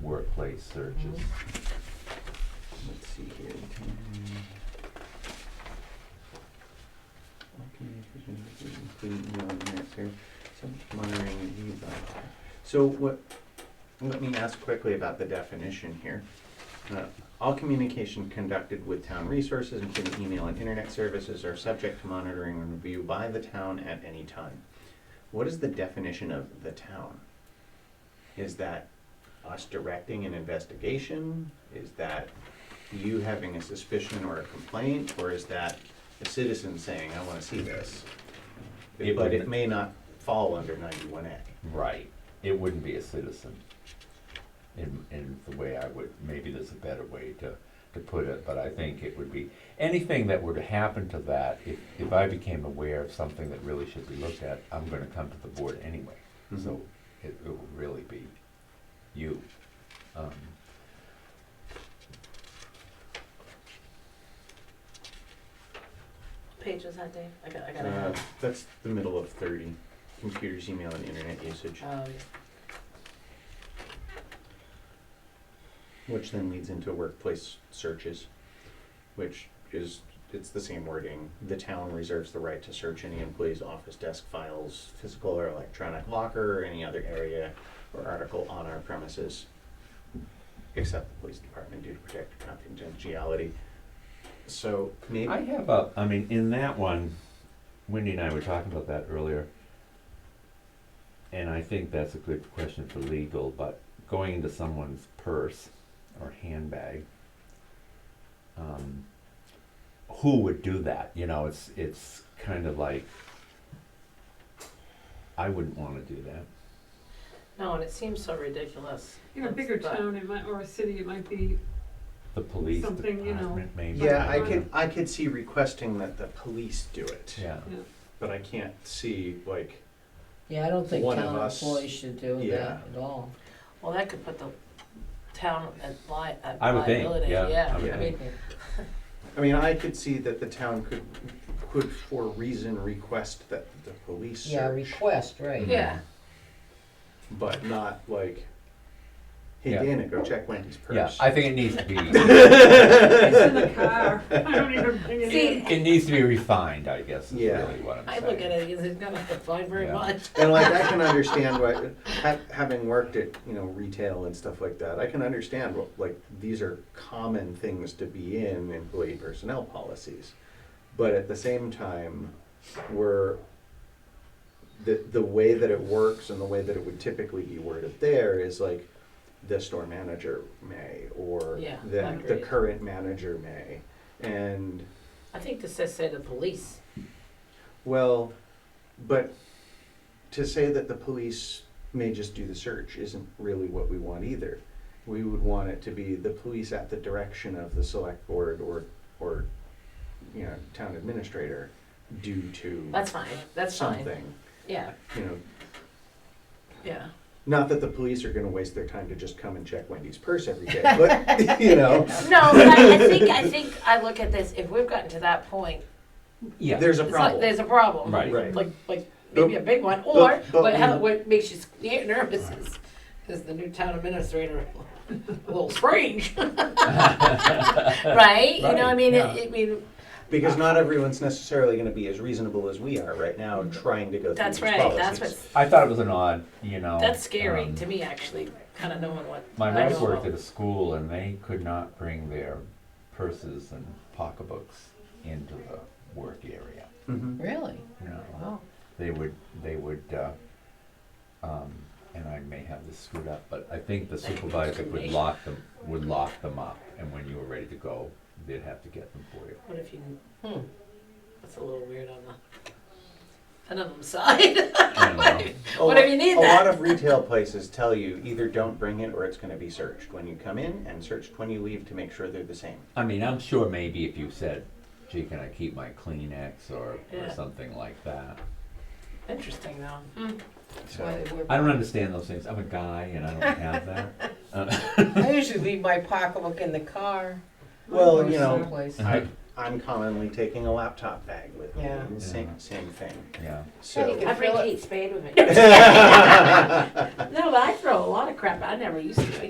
workplace searches. Let's see here. So what, let me ask quickly about the definition here. Uh, All communication conducted with town resources, including email and internet services, are subject to monitoring and review by the town at any time. What is the definition of the town? Is that us directing an investigation? Is that you having a suspicion or a complaint, or is that a citizen saying, I wanna see this? It But would- it may not fall under ninety-one A. Right, it wouldn't be a citizen. In, in the way I would, maybe there's a better way to, to put it, but I think it would be, anything that were to happen to that, if, if I became aware of something that really should be looked at, I'm gonna come to the board anyway. So it, it will really be you. Um, Page was that, Dave? I got, I gotta Uh, have. That's the middle of thirty, computers, email, and internet usage, Uh, Um, which then leads into workplace searches, which is, it's the same wording. The town reserves the right to search any employee's office desk files, physical or electronic locker, or any other area or article on our premises, except the police department due to protect confidentiality. So maybe, I have a, I mean, in that one, Wendy and I were talking about that earlier. And I think that's a good question for legal, but going into someone's purse or handbag, um, who would do that? You know, it's, it's kind of like, I wouldn't wanna do that. No, and it seems so ridiculous. In a bigger But- town, it might, or a city, it might be, The police Something, you know. department maybe. yeah, I don't could, know. I could see requesting that the police do it. Yeah, yeah. But I can't see like Yeah, I don't think One of town us- employees should do yeah. that at all. Well, that could put the town at li- at I would think, liability, yeah, yeah. I would I think. mean, I mean, I could see that the town could, could for reason request that the police Yeah, search, request, right. Yeah, but not like, hey, Yeah. Dana, go check Wendy's yeah, purse. I think it needs to be, It's in the car, I don't even bring it See, in. it needs to be refined, I guess, is Yeah. really what I'm I saying. look at it, it's not defined very Yeah. much. And like, I can understand why, ha- having worked at, you know, retail and stuff like that, I can understand what, like, these are common things to be in employee personnel policies. But at the same time, we're, the, the way that it works and the way that it would typically be worded there is like, the store manager may, or Yeah, the, the agreed. current manager may. And I think this says say the police. well, but to say that the police may just do the search isn't really what we want either. We would want it to be the police at the direction of the select board or, or, you know, town administrator due to That's fine, that's fine. something, Yeah, you know. yeah. Not that the police are gonna waste their time to just come and check Wendy's purse every day, but, you know, No, but I I think, I think I look at this, if we've gotten to that point, Yeah. there's a it's like, problem. there's a problem. Right. Right. Like, like maybe a big one, or, but- but but how, we- what makes you scared nervous is, is the new town administrator a little strange. Right? You know, I Right, mean, yeah. it, it mean, Because not everyone's necessarily gonna be as reasonable as we are right now, trying to go through these Mm-hmm. that's policies. right, that's what's, I thought it was an odd, you know. that's scary um, to me, actually, kinda knowing what. My I wife don't worked know. at a school and they could not bring their purses and pocketbooks into the work area. Mhm. Really? No, Wow. they would, they would, uh, um, and I may have this screwed up, but I think the supervisor would lock them, would lock them up. And when you were ready to go, they'd have to get them for you. What if you, Hmm. that's a little weird on the, on the side. I don't know. A What if lot- you need A that? lot of retail places tell you either don't bring it or it's going to be searched when you come in and searched when you leave to make sure they're the same. I mean, I'm sure maybe if you said, gee, can I keep my Kleenex or, or Yeah. something like that. Interesting though. That's why they I wear. don't understand those things. I'm a guy and I don't have that. I usually leave my pocketbook in the car. Well, or you know, someplace. I, I'm commonly taking a laptop bag with me. Yeah. Same, same thing. Yeah. So, I bring Fill it. Kate Spade with me. no, but I throw a lot of crap. I never used to.